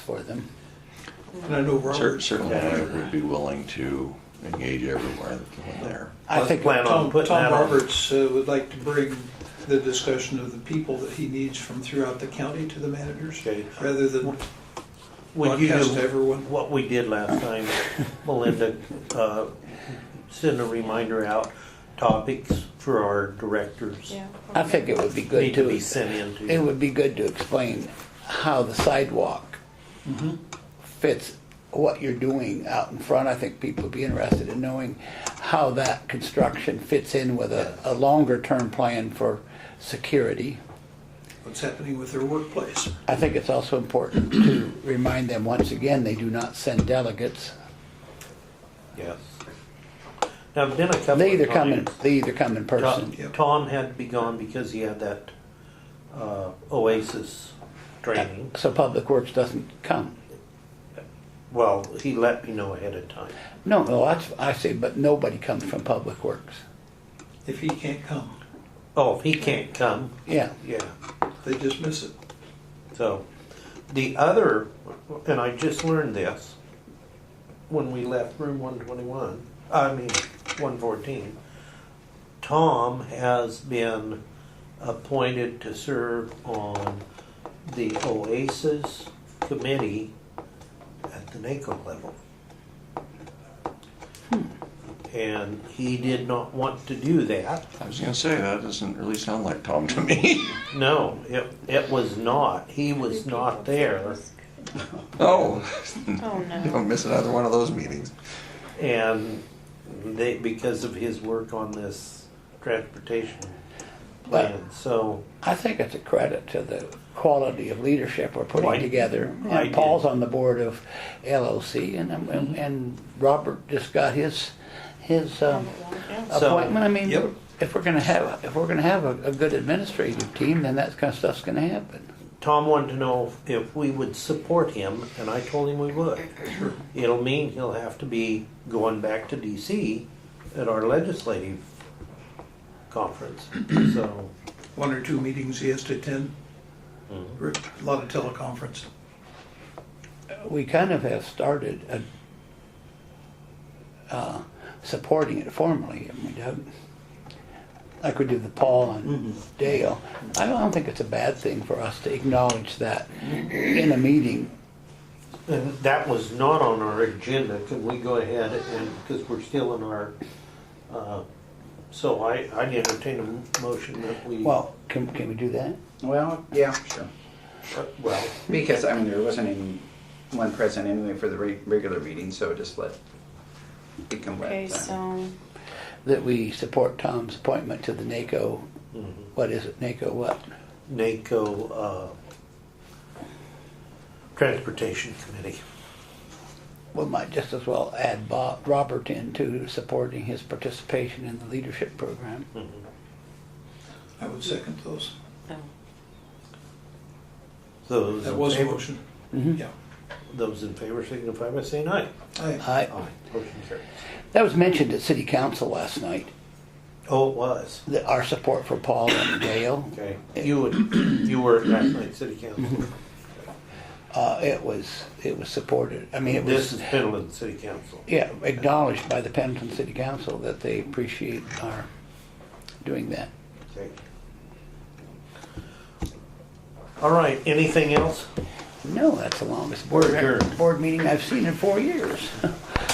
for them. And I know Cer- Robert. Certainly, Yeah. I would be willing to engage everywhere that the one there. I think, plan on Tom, putting Tom that on. Roberts uh, would like to bring the discussion of the people that he needs from throughout the county to the managers, Okay. rather than Would you broadcast to do everyone. what we did last time, Melinda, uh, send a reminder out, topics for our directors Yeah. I think it would be good need to to, be sent in it to. would be good to explain how the sidewalk fits what you're doing out in front. I think people would be interested in knowing how that construction fits in with a, a longer-term plan for security. what's happening with their workplace. I think it's also important to remind them, once again, they do not send delegates. Yes. Now, I've been a couple of They either come in, times. they either come in Tom, person. Yep. Tom had to be gone because he had that, uh, Oasis training. So Public Works doesn't come. Well, he let me know ahead of time. No, no, that's, I see, but nobody comes from Public Works. If he can't come, Oh, if he can't come, Yeah. yeah. they just miss it. So, the other, and I just learned this when we left room 121, I mean 114, Tom has been appointed to serve on the Oasis Committee at the NACO level. And he did not want to do that. I was gonna say, that doesn't really sound like Tom to me. No, it, it was not. He was not there. Oh, Oh, no. don't miss another one of those meetings. and they because of his work on this transportation But- plan. So I think it's a credit to the quality of leadership we're putting Well, I- together. And I do. Paul's on the board of LOC, and and, and Robert just got his his um, Yeah. So- appointment. I mean, Yep. if we're gonna have if we're gonna have a, a good administrative team, then that kind of stuff's gonna happen. Tom wanted to know if we would support him, and I told him we would. It'll mean he'll have to be going back to D.C. at our legislative conference. So One or two meetings he has to attend. Re- A lot of teleconference. We kind of have started a, uh, supporting it formally, haven't we, Doug? Like we did the Paul and Dale. I don't think it's a bad thing for us to acknowledge that in a meeting. and that was not on our agenda. Can we go ahead and because we're still in our. Uh, so I I entertain a motion that we Well, can, can we do that? Well, yeah, sure. uh, well Because, I mean, there wasn't any one present anyway for the re- regular meeting, so just let it come back. Okay, time. so That we support Tom's appointment to the NACO, what is it, NACO what? NACO uh, Transportation Committee. We might just as well add Bob, Robert in to supporting his participation in the leadership program. I would second those. Those That in was a favor- motion. Mhm. Yeah. Those in favor signify by saying aye. Aye. I, Motion carries. that was mentioned at city council last night, Oh, it was. that our support for Paul and Dale. Okay. You would, you were at last night's city council. Uh, it was, it was supported, I mean, it This was, is Pendleton City Council. yeah, acknowledged by the Pendleton City Council that they appreciate our doing that. Okay. All right, anything else? No, that's the longest We're board, adjourned. board meeting I've seen in four years.